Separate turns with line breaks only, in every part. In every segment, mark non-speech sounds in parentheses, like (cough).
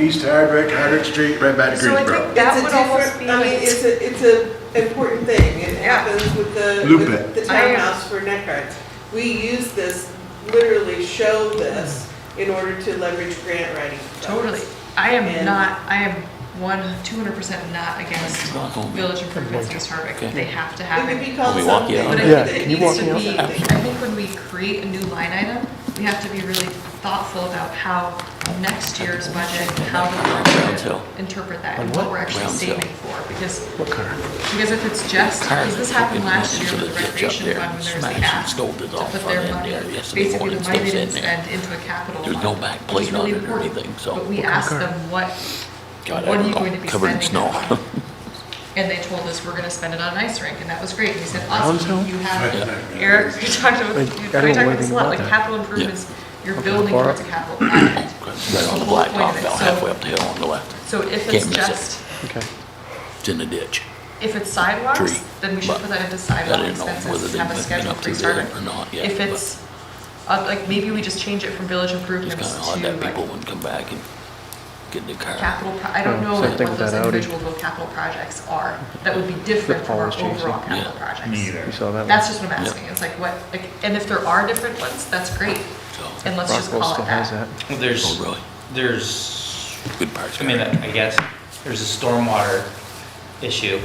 East Hardwick, Hardwick Street, right back to
So I
Greensboro.
think that
It's a
would almost
different-
be
I mean,
like,
it's a, it's a important thing. It
Yeah.
happens with the,
Loop
with
it.
the townhouse for neck cards. We use this, literally show this in order to leverage grant writing. funds.
totally. I am
And-
not, I am one, two hundred percent not against village improvements in East Hardwick.
Okay.
They have to
It
happen.
could be called
Can we walk
something.
you out?
But I
Yeah,
think that it
can you
needs
walk
to
me out?
be, I think when we create a new line item, we have to be really thoughtful about how next year's budget, how
Round
the
hill.
board would interpret that and
On
what
what?
we're actually
Round hill.
saving for. Because,
What car?
because if it's just,
Cars
because this
are
happened
fucking
last year
mountains
with the
of the ditch up
recreation
there,
fund, when there's the
smashed and
app to
scolded off
put
on
their
it
money,
there yesterday
basically
morning,
the money they
still
didn't
sitting there.
spend into a capital
There's
fund,
no back
which
plate
is really
on it or
important.
anything, so-
But we
What
kind of
asked
car?
them, what,
God, I
what are
don't
you
know.
going to be
Covered in
spending it
snow.
on? And they told us, we're gonna spend it on an ice rink, and that was great. And we said,
Round
awesome,
hill?
you have,
Yeah.
Eric, we talked about,
I- I
you- we
don't
talked
know
about this a
anything
lot,
about
like
that.
capital improvements, you're building
borrow
towards a capital project.
Right on the blacktop, about halfway up the hill on the left.
So if
Can't
it's
miss it.
just,
Okay.
It's in the ditch.
if it's sidewalks,
Tree.
then we should
But
put that into
I
sidewalk
didn't know whether
expenses,
they'd
have a
been
schedule
up
for
to
each
there
starter.
or not yet.
If
but
it's, uh, like, maybe we just change it from village
It's
improvements
kind of
to
odd that people uh,
like
wouldn't come back and get in the car.
capital, pro- I don't
Yeah,
know
same
what
thing with
those
that Audi.
individual little capital projects are, that would be different from our
Flip polish,
overall
yeah.
capital projects.
You saw that one?
That's just what I'm
Yeah.
asking, it's like what, like, and if there are different ones, that's great,
So,
and let's just
Rockwell
call it
still has
that.
that.
Well,
oh,
there's,
really?
there's,
Good parts.
I mean,
Eric.
I guess, there's a stormwater issue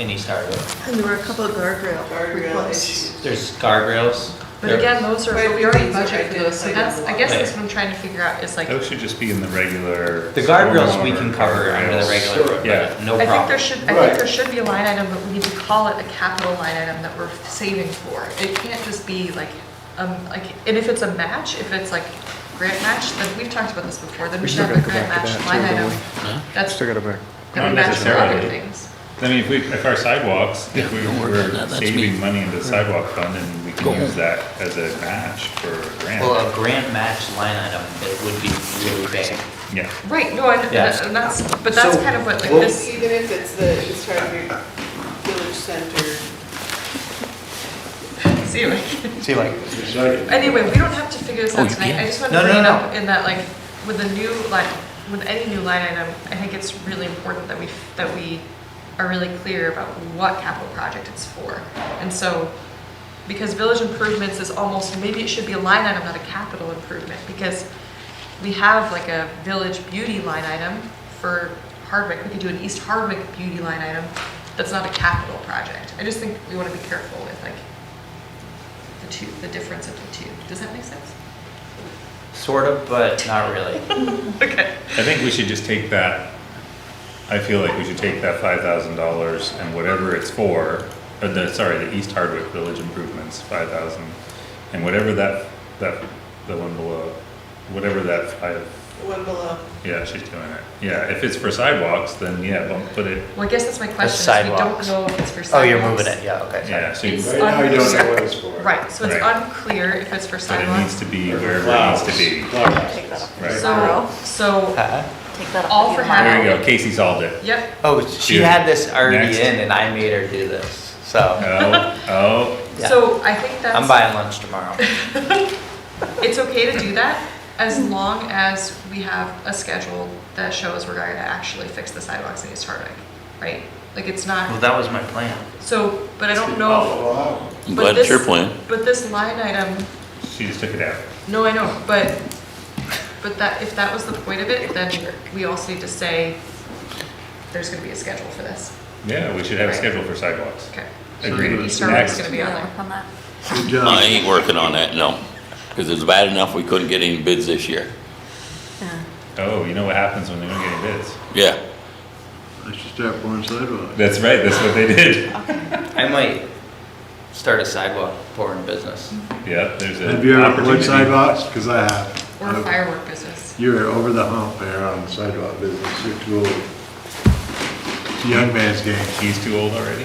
in East Hardwick.
And there were a couple of guardrail
Guardrail
requests.
issues.
There's guardrails.
But
There-
again, those are, but we already budget for those, so that's, I guess that's
Right.
what I'm trying to figure out, is like, I
Those should just be in the regular.
The guardrails we can cover under the
guardrails.
regular,
Yeah.
budget, no problem.
think there should, I
Right.
think there should be a line item, but we need to call it a capital line item that we're saving for. It can't just be like, um, like, and if it's a match, if it's like grant match, then we've talked about this before, then we
We
should
still
have a
gotta go
grant
back to
match
that
line
too, don't
item.
we?
That's,
Still
that
got a break.
would
Not
match for other
necessarily.
things.
I mean, if we, if our sidewalks, if we
don't worry about that,
were
that's me.
saving money in the sidewalk fund and we
Go
can
home.
use that as a match for a grant.
Well, uh, a grant match line item, it would be really big.
Yeah.
Right, no, I, and
Yeah.
that's, but that's
So-
kind of what, like,
Even
this, (laughs)
if it's the, it's trying to be village center.
see, (laughs) like,
See, like,
Anyway, we don't have to figure this
Oh,
out
you
tonight, I
can't?
just wanted
No,
to bring
no,
it
no.
up in that, like, with a new line, with any new line item, I think it's really important that we, that we are really clear about what capital project it's for. And so, because village improvements is almost, maybe it should be a line item, not a capital improvement, because we have like a village beauty line item for Hardwick, we could do an East Hardwick beauty line item, that's not a capital project. I just think we wanna be careful with like the two, the difference of the two. Does that make sense?
sort of, but
(laughs)
not really.
Okay.
I think we should just take that, I feel like we should take that five thousand dollars and whatever it's for, or the, sorry, the East Hardwick Village Improvements, five thousand, and whatever that, that, the one below, whatever that five,
One below.
yeah, she's doing it. Yeah, if it's for sidewalks, then yeah, bump, put it,
Well, I guess that's my question, is we don't
sidewalks.
know if it's for sidewalks.
Oh, you're moving it, yeah, okay. sorry.
yeah, so you,
It's
Right now, you don't know what it's for.
Right, so it's
Right.
unclear if it's for
but it needs
sidewalks.
to be wherever it needs to be.
Take that off.
Right.
So, so,
Huh?
Take that off.
All
of
for
your
half.
mind.
There you go, Casey solved
(laughs)
it.
yep,
Oh, she
Dude.
had this already
Next.
in and I made her do this, so
Oh, oh,
Yeah.
so I think that's.
I'm buying lunch tomorrow.
It's okay to do that as long as we have a schedule that shows we're going to actually fix the sidewalks in East Hardwick, right? Like, it's
Well,
not,
that was my plan.
so, but I don't know,
Wow.
I'm
but
glad it's your
this-
plan.
but this line item,
she just took it out.
No, I know, but, but that, if that was the point of it, then we also need to say, there's gonna be a schedule for this.
Yeah, we should have a
Right.
schedule for sidewalks.
Okay.
Agreed.
East Hardwick's
Next.
gonna be on there.
Work on that.
Good job.
I ain't working on that, no. Because it's bad enough we couldn't get any bids this year.
Yeah.
Oh, you know what happens when they don't get any bids?
Yeah.
I should start pouring sidewalks.
That's right, that's what they did.
I might start a sidewalk pouring business.
Yep, there's a.
Have you ever poured
opportunity.
sidewalks? Because I have.
Or a firework business.
You're over the hump there on the sidewalk business. You're too old. It's a young man's game.
He's too old already?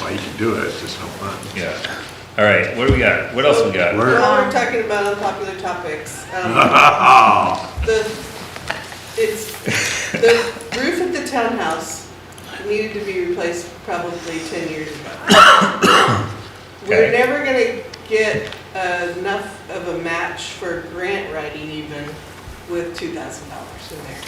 Why you can do it, it's just no fun. (laughs)
Yeah. All right, what do we got? What else we got?
Work.
While we're talking about unpopular topics, um,
(laughs)
The, it's, the roof of the townhouse needed to be replaced probably ten years ago. We're
Okay.
never gonna get enough of a match for grant writing even with two thousand dollars in there.